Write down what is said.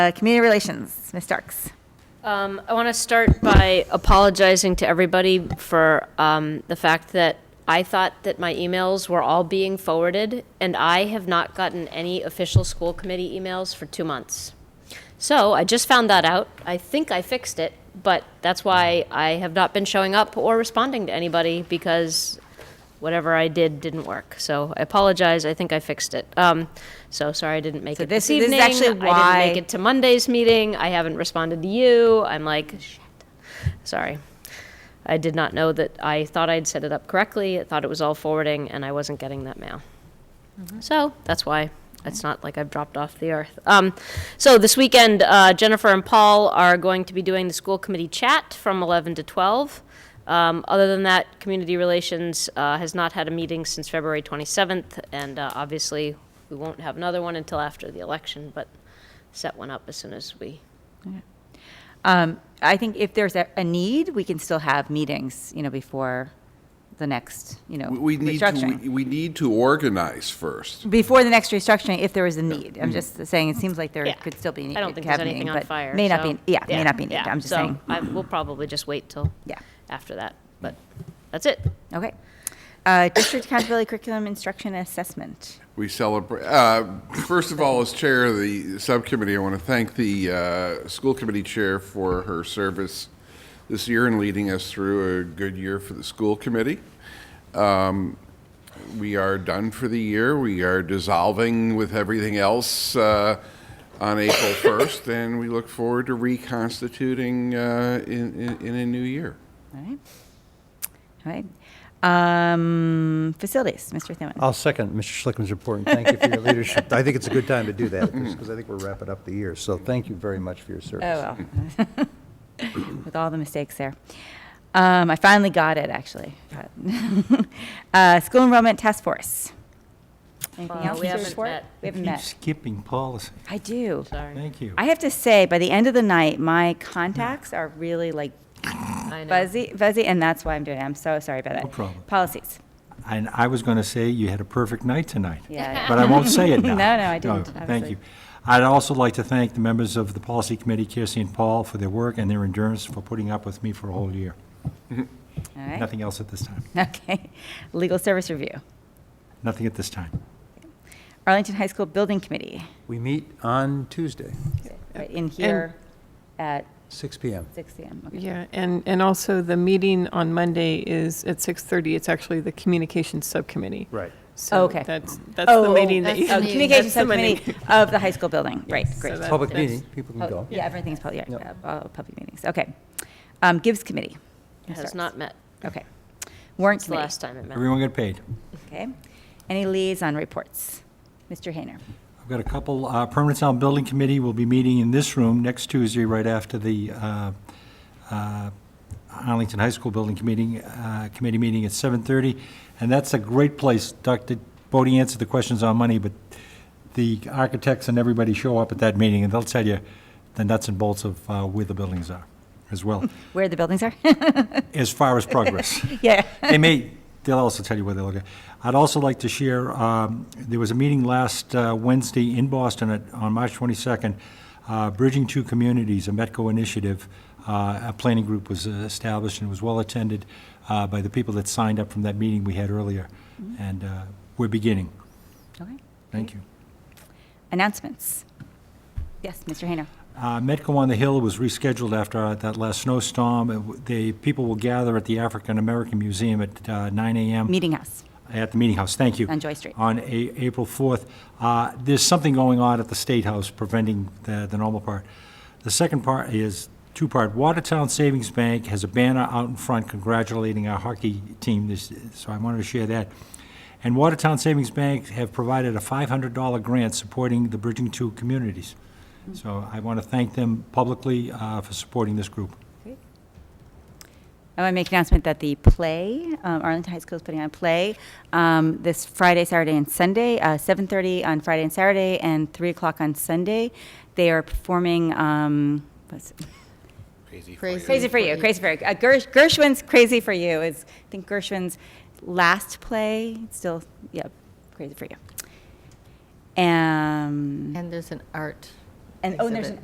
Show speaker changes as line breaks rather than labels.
Uh, Community Relations, Ms. Starks.
Um, I want to start by apologizing to everybody for um, the fact that I thought that my emails were all being forwarded, and I have not gotten any official school committee emails for two months. So I just found that out. I think I fixed it, but that's why I have not been showing up or responding to anybody because whatever I did didn't work. So I apologize. I think I fixed it. Um, so sorry I didn't make
So
it
this-
this,
this is
evening.
actually
I
why-
didn't make it to Monday's meeting. I haven't responded to you. I'm like, shit. Sorry. I did not know that I thought I'd set it up correctly. I thought it was all forwarding, and I wasn't getting that mail. So that's why it's not like I've dropped off the earth. Um, so this weekend, uh, Jennifer and Paul are going to be doing the school committee chat from 11 to 12. Um, other than that, Community Relations uh, has not had a meeting since February 27th, and uh, obviously we won't have another one until after the election, but set one up as soon as we.
Um, I think if there's a, a need, we can still have meetings, you know, before the next, you know,
We we need to,
restructuring.
we- we need to organize first.
Before the next restructuring, if there is a need.
Mm-hmm.
I'm just saying, it seems like there
Yeah.
could still be. a need
I don't
to
think
have
there's
a
anything
meeting,
on
but
fire.
May not
so-
be, yeah, may not be, needed. I'm just
So
saying,
I, we'll probably just wait till
yeah,
after that, but that's it.
okay. Uh, District accountability curriculum instruction and assessment.
We celebrate, uh, first of all, as chair of the subcommittee, I want to thank the uh, school committee chair for her service this year and leading us through a good year for the school committee. Um, we are done for the year. We are dissolving with everything else uh, on April 1st, and we look forward to reconstituting uh, in, in, in a new year.
All right. All right. Um, facilities, Mr. Thielman.
I'll second Mr. Schlickman's report, and thank you for your leadership. Mm-hmm. I think it's a good time to do that, because I think we're wrapping up the year, so thank you very much for your
Oh,
service.
well.
Hmm.
With all the mistakes there. Um, I finally got it, actually. Uh, School Enrollment Task Force. Anything
Uh,
else?
we
Mr.
haven't
Schwartz?
met.
We haven't
Keep
met.
skipping policy.
I do.
Sorry.
Thank you.
I have to say, by the end of the night, my contacts are really like
I know.
fuzzy, fuzzy, and that's why I'm doing it. I'm so sorry about that.
problem.
Policies.
And I was going to say you had a perfect night tonight.
Yeah.
But I won't say it now. Oh,
No, no, I didn't,
Thank
obviously.
you. I'd also like to thank the members of the Policy Committee, Kirsty and Paul, for their work and their endurance for putting up with me for a whole year.
All right.
Nothing else at this time.
Okay. Legal Service Review.
Nothing at this time.
Arlington High School Building Committee,
We meet on Tuesday,
right in here at
6 PM.
six AM. Okay.
Yeah, and, and also the meeting on Monday is at 6:30. It's actually the Communications Subcommittee.
Right.
Oh,
So
okay.
that's, that's the meeting that
that's
you.
the
Oh,
have.
meeting.
Communication
That's the meeting.
Subcommittee of the high school building, right,
So
great.
that-
Public
that's-
meeting, people can
Oh,
go.
Yeah, everything's public, yeah,
Yep.
uh, all public meetings, okay. Um, Gives committee. Ms.
Has
Starks.
not met.
Okay. Warrant
It's the
committee,
last time it met.
Everyone get paid.
okay. Any liaison reports? Mr. Hayner.
I've got a couple, uh, Permanent Sound Building Committee will be meeting in this room next Tuesday, right after the uh, uh, Arlington High School Building Committee, uh, Committee meeting at 7:30. And that's a great place, Dr. Bodie answered the questions on money, but the architects and everybody show up at that meeting, and they'll tell you the nuts and bolts of uh, where the buildings are as well,
Where the buildings are?
as far as progress
Yeah.
they may, they'll also tell you where they look at. I'd also like to share, um, there was a meeting last uh, Wednesday in Boston at- on March 22nd, uh, Bridging Two Communities, a Metco initiative. Uh, A planning group was uh, established and was well-attended uh, by the people that signed up from that meeting we had earlier. And uh, we're beginning.
Okay.
Thank you.
Announcements. Yes, Mr. Hayner.
Uh, Metco on the Hill was rescheduled after uh, that last snowstorm. It w- The people will gather at the African American Museum at uh, 9 a.m.
Meeting House.
At the Meeting House, thank you.
On Joy Street.
On A- April 4th. Uh, There's something going on at the State House preventing the, the normal part. The second part is two-part. Watertown Savings Bank has a banner out in front congratulating our hockey team this, so I wanted to share that. And Watertown Savings Bank have provided a $500 grant supporting the Bridging Two communities. So I want to thank them publicly uh, for supporting this group.
I want to make an announcement that the play, um, Arlington High School is putting on a play um, this Friday, Saturday, and Sunday, uh, 7:30 on Friday and Saturday, and 3 o'clock on Sunday. They are performing, um, what's it? Crazy for You, Crazy for You. Uh, Gersh- Gershwin's Crazy for You is, I think Gershwin's last play, It's still, yeah, Crazy for You. Um,
And there's an art.
And, oh, and there's
exhibit.
an